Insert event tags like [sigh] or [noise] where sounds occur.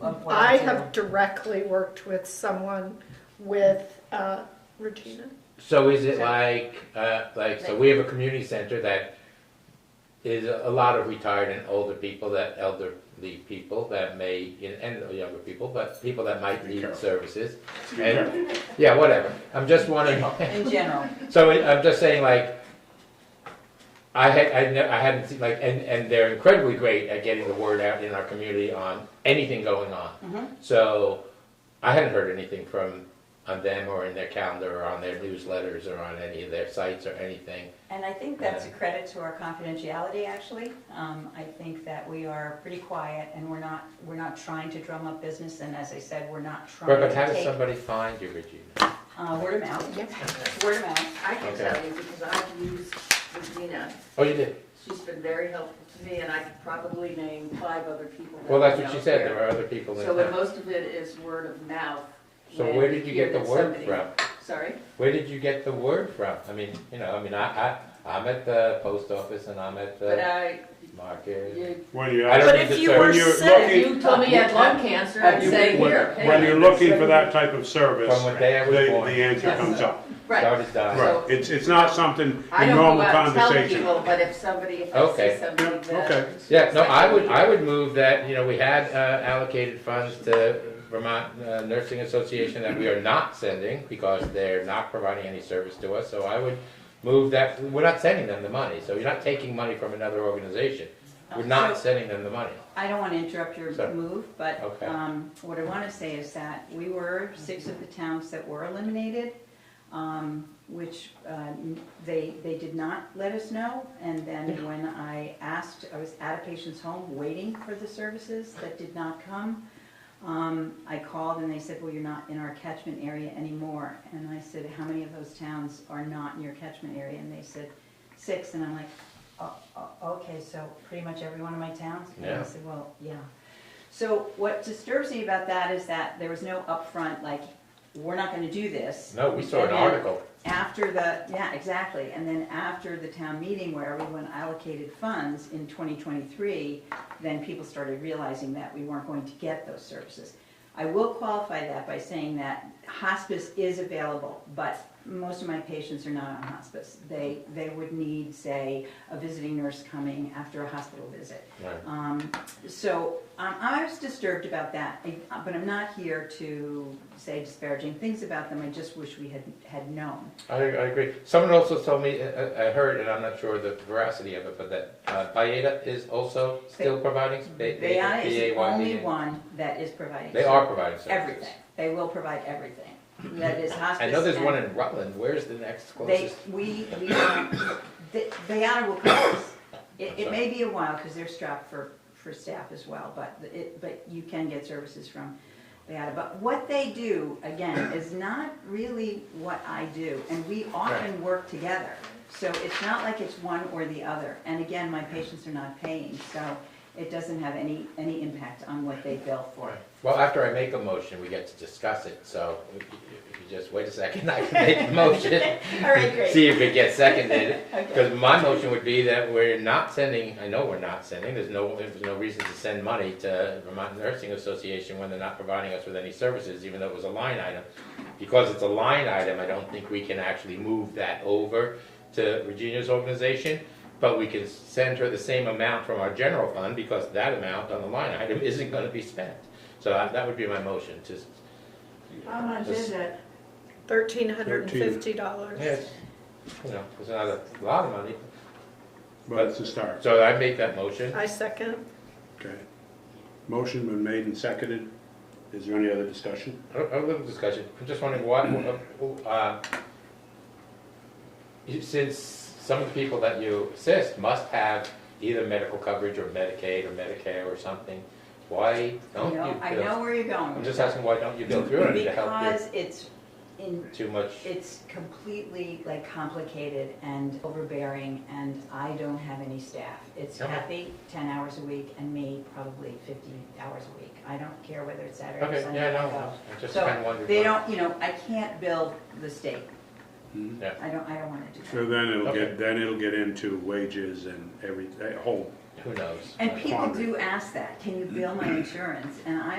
of what I do. have directly worked with someone with uh, Regina. So is it So- like, uh, like, so we have a community center that is a lot of retired and older people, that elderly people that may, and younger people, but people that might Be need careful. services. And, yeah, whatever. I'm just wondering, In [laughs] general, so I- I'm just saying like, I had, I ne- I hadn't seen, like, and, and they're incredibly great at getting the word out in our community on anything going on. Mm-hmm. Mhm. So I hadn't heard anything from, on them or in their calendar or on their newsletters or on any of their sites or anything. and I think that's a credit to our confidentiality, actually. Um, I think that we are pretty quiet, and we're not, we're not trying to drum up business, and as I said, we're not But trying but how to does take, somebody find you, Regina? uh, word of mouth, word of mouth. I can Okay. tell you because I've used Regina. Oh, you did? She's been very helpful to me and I could probably name five other people. that Well, that's I what know she said, here. there are other people in So and town. most of it is word of mouth. So when where did you hear get the that word somebody- from? Sorry? Where did you get the word from? I mean, you know, I mean, I, I, I'm at the post office and I'm at But the I, market. you, When you I ask, don't But need if to you serve were you- sick, lucky- you told me you had lung cancer, I'd you- say when- here. when hey, you're looking for that type of service, From the, what day I was born. the answer Yes. comes up. Right. Started dying. Right, So- it's, it's not something I in don't go normal out and tell conversation. people, but if somebody, if I Okay. see somebody Yeah, okay. that. Yeah, no, I would, I would move that, you know, we had uh, allocated funds to Vermont uh, Nursing Association that we are not sending because they're not providing any service to us, so I would move that, we're not sending them the money, so you're not taking money from another organization. We're not So- sending them the money. I don't want to interrupt your Sorry. move, but Okay. um, what I want to say is that we were six of the towns that were eliminated, um, which uh, they, they did not let us know. And then when I asked, I was at a patient's home waiting for the services that did not come. Um, I called and they said, well, you're not in our catchment area anymore. And I said, how many of those towns are not in your catchment area? And they said, six. And I'm like, "Oh, oh, okay, so pretty much every one of my towns? And Yeah. I said, well, yeah. So what disturbs me about that is that there was no upfront, like, we're not gonna do this. No, we saw an And then article. After the, yeah, exactly, and then after the town meeting where everyone allocated funds in twenty twenty-three, then people started realizing that we weren't going to get those services. I will qualify that by saying that hospice is available, but most of my patients are not on hospice. They, they would need, say, a visiting nurse coming after a hospital visit. Right. Um, So um, I was disturbed about that, I- but I'm not here to say disparaging things about them. I just wish we had, had known. I, I agree. Someone also told me, uh, I, I heard, and I'm not sure the veracity of it, but that uh, Bayeda is also still providing. They, Bayonne is the only BAYD. one that is providing. They are providing services. Everything. They will provide everything. That is hospice. [laughs] I know there's and- one in Rutland. Where's the next They, closest? we, we, don't- the- Bayonne will cover us. It, it may be a while, because they're strapped for, for staff as well, but it, but you can get services from Bayonne. But what they do, again, is not really what I do, and we often work together. So it's not like it's one or the other. And again, my patients are not paying, so it doesn't have any, any impact on what they bill for. Well, after I make a motion, we get to discuss it, so if you- if you just wait a second, I can [laughs] make the motion. All right, great. See if it gets seconded, Okay. because my motion would be that we're not sending, I know we're not sending, there's no, there's no reason to send money to Vermont Nursing Association when they're not providing us with any services, even though it was a line item. Because it's a line item, I don't think we can actually move that over to Regina's organization, but we can send her the same amount from our general fund, because that amount on the line item isn't gonna be spent. So I- that would be my motion, to. How much is it? $1,350. Yes, you know, it's not a lot of money, But it's a start, so I make that motion. I second. okay. Motion been made and seconded. Is there any other discussion? A a little discussion, I'm just wondering what, uh, you- since some of the people that you assist must have either medical coverage or Medicaid or Medicare or something, why You don't know, I you know go? where you're going. I'm just asking, why don't you go through it to help you? Because it's in, Too much, it's completely like complicated and overbearing and I don't have any staff. It's Okay. Kathy, ten hours a week, and me, probably fifty hours a week. I don't care whether it's Saturday or okay, Sunday. yeah, I no, go. I just So, kind of wondered. They why. don't, you know, I can't build the state. Hmm? I don't, I don't wanna do So that. then it'll Okay. get, then it'll get into wages and every, a whole Who knows? And Uh, people do ask that, can you bill my insurance? And I,